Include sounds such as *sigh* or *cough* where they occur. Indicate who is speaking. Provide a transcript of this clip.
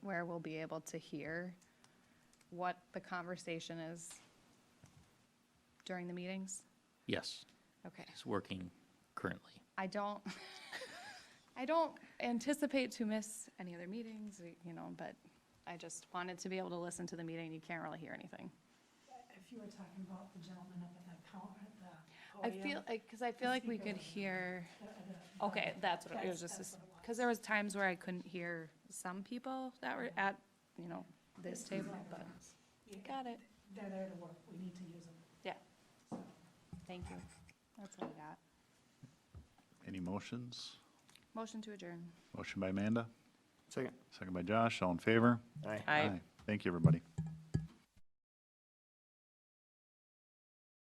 Speaker 1: where we'll be able to hear what the conversation is during the meetings?
Speaker 2: Yes,
Speaker 1: Okay.
Speaker 2: it's working currently.
Speaker 1: I don't, *laughs* I don't anticipate to miss any other meetings, you know, but I just wanted to be able to listen to the meeting. You can't really hear anything.
Speaker 3: If you were talking about the gentleman up at that counter, at the
Speaker 1: I
Speaker 3: podium,
Speaker 1: feel, because I feel like we could hear, okay, that's what it was, just,
Speaker 3: That's- that's what it
Speaker 1: because there was times where I couldn't hear some people that were at, you know, this table, but,
Speaker 3: you-
Speaker 1: got it.
Speaker 3: They're there to work, we need to use them.
Speaker 1: Yeah,
Speaker 3: So,
Speaker 1: thank you. That's what I got.
Speaker 4: Any motions?
Speaker 1: Motion to adjourn.
Speaker 4: Motion by Amanda,
Speaker 5: Second.
Speaker 4: second by Josh, all in favor?
Speaker 5: Aye.
Speaker 6: Aye.
Speaker 4: Thank you, everybody.